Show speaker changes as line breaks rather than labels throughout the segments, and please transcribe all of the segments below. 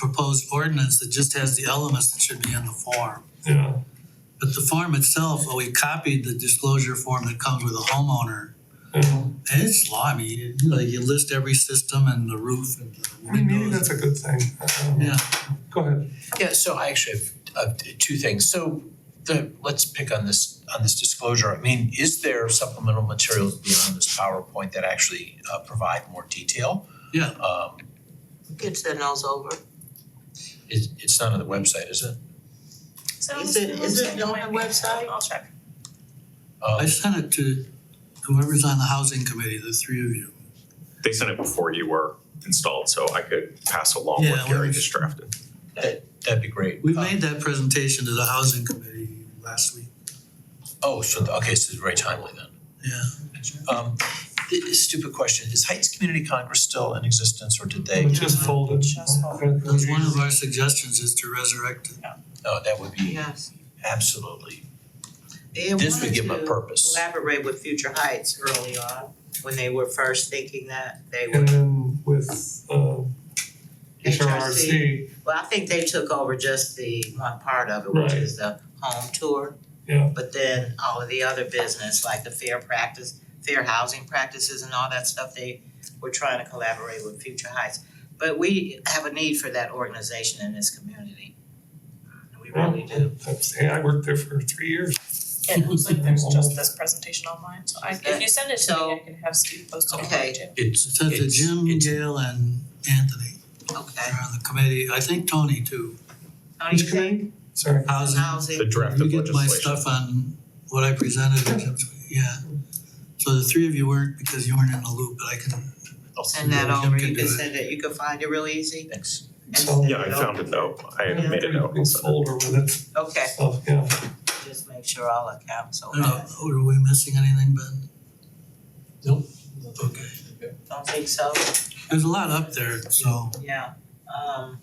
proposed ordinance that just has the elements that should be in the form.
yeah.
But the form itself, well, we copied the disclosure form that comes with a homeowner.
yeah.
And it's law, I mean, you know, you list every system and the roof and the
I mean, maybe that's
windows.
a good thing. Um,
Yeah,
Go ahead.
Yeah, so I actually have uh two things. So the, let's pick on this, on this disclosure. I mean, is there supplemental materials beyond this PowerPoint that actually uh provide more detail?
Yeah.
Um
It's in those over.
it's it's not on the website, is it?
So
Is it- is it on the website?
I'll check.
Um,
I sent it to whoever's on the housing committee, the three of you.
They sent it before you were installed, so I could pass along
Yeah,
what
we-
Gary just drafted.
that'd be great.
We
Um,
made that presentation to the housing committee last week.
Oh, so the- okay, so it's very timely then.
Yeah.
Um th- stupid question, is Heights Community Congress still in existence or did they?
Mm-hmm.
It's just folded.
Just folded.
That was one of our suggestions is to resurrect it.
Oh, that would be
Yes.
absolutely,
They had
this would give them
wanted
a
to
purpose.
Collaborate with Future Heights early on, when they were first thinking that they were,
And then with uh HRRC,
well, I think they took over just the one part of it, which
Right.
is the home tour.
Yeah.
But then all of the other business, like the fair practice, fair housing practices and all that stuff, they were trying to collaborate with Future Heights. But we have a need for that organization in this community. We really do.
that's, hey, I worked there for three years.
And it looks like there's just this presentation online, so I, if you send it to me, I can have Steve post it online too.
Okay.
it's
It said that
it's-
Jim,
it's-
Gail and Anthony
Okay.
are on the committee. I think Tony too.
Don't you
Which
think
committee? Sorry.
Housing.
The
housing,
draft
You
of
get my
legislation.
stuff on what I presented in Jim's, yeah. So the three of you weren't because you weren't in the loop, but I can, uh,
send that
Jim
over,
can
you
do
can
it.
send it, you can find it real easy
oh, Thanks.
and
So-
send it
Yeah, I found a
over.
note. I
Yeah,
made a
pretty
note.
Big folder with it,
Okay,
so, yeah.
just make sure all accounts
I
are
don't know,
okay,
were oh, we missing anything, Ben? Nope. Okay,
don't think so,
there's a lot up there, so
yeah, um,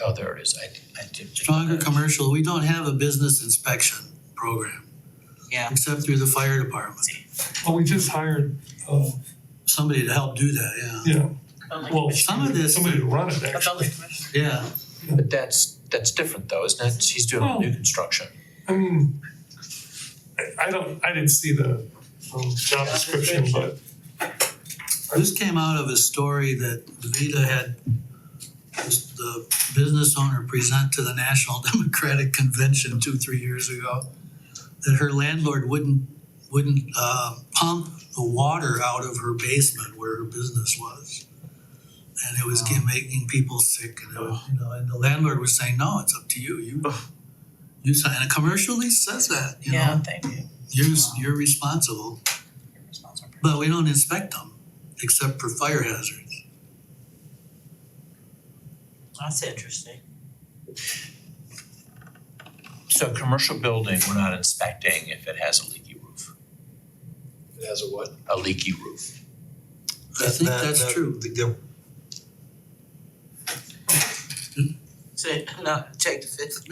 Oh, there it is. I did, I did. think
stronger
that.
commercial, we don't have a business inspection program.
Yeah.
Except through the fire department,
Well, we just hired, uh,
somebody to help do that, yeah.
yeah,
oh
Online
well,
commission.
Some of this-
somebody to run it
A
actually.
building commission.
Yeah,
But that's, that's different though, isn't it? He's doing
Oh.
new construction.
I mean, I, I don't, I didn't see the, um, job description, but
This came out of a story that Vita had this- the business owner present to the National Democratic Convention two, three years ago. That her landlord wouldn't, wouldn't uh, pump the water out of her basement where her business was. And it was ge- making people sick and it was, you know, and the landlord was saying, no, it's up to you, you. You sign, and a commercial lease says that, you
Yeah,
know,
thank you.
you're, you're responsible.
Your response are-
But we don't inspect them, except for fire hazards.
that's interesting.
So a commercial building, we're not inspecting if it has a leaky roof,
It has a what?
a leaky roof.
I think
That-
that's
that-
true.
the- the-
So, no, take the fifth.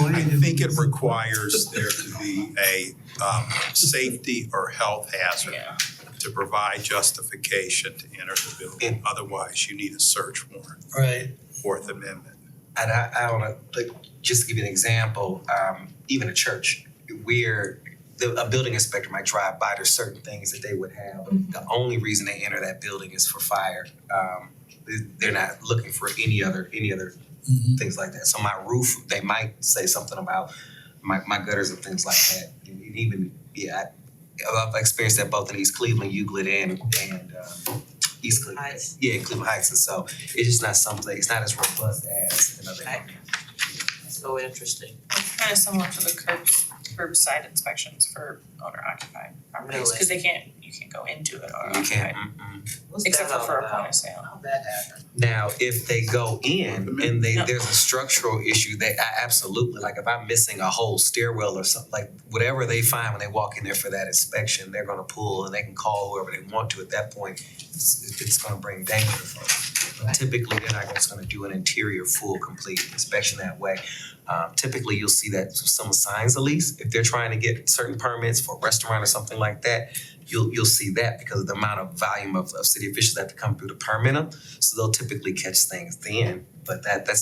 I think it requires there to be a um, safety or health hazard to provide justification to enter the building. Otherwise, you need a search warrant,
Right.
Fourth Amendment.
and I, I don't know, like, just to give you an example, um, even a church, where the, a building inspector might drive by, there's certain things that they would have. The only reason they enter that building is for fire. Um, they- they're not looking for any other, any other
Mhm.
things like that. So my roof, they might say something about my, my gutters and things like that. And even, yeah, I, I've experienced that both in East Cleveland, Euclid and, and, um, East Cleveland.
Heights.
Yeah, Cleveland Heights. And so it's just not something, it's not as robust as another
Right.
area.
So interesting,
It's kind of similar to the curb, curbside inspections for owner occupied properties,
Really?
cause they can't, you can't go into it or
You
occupied,
can't, mm-mm.
what's that
except for
all
for a
about?
point of sale.
How'd that happen?
Now, if they go in and they,
No.
there's a structural issue, they, I absolutely, like if I'm missing a whole stairwell or something, like whatever they find when they walk in there for that inspection, they're gonna pull and they can call whoever they want to at that point. It's, it's gonna bring danger for them. But Typically, they're not just gonna do an interior full complete inspection that way. Um, typically, you'll see that some signs at least, if they're trying to get certain permits for a restaurant or something like that, you'll, you'll see that because of the amount of volume of, of city officials that have to come through to permit them. So they'll typically catch things then, but that, that's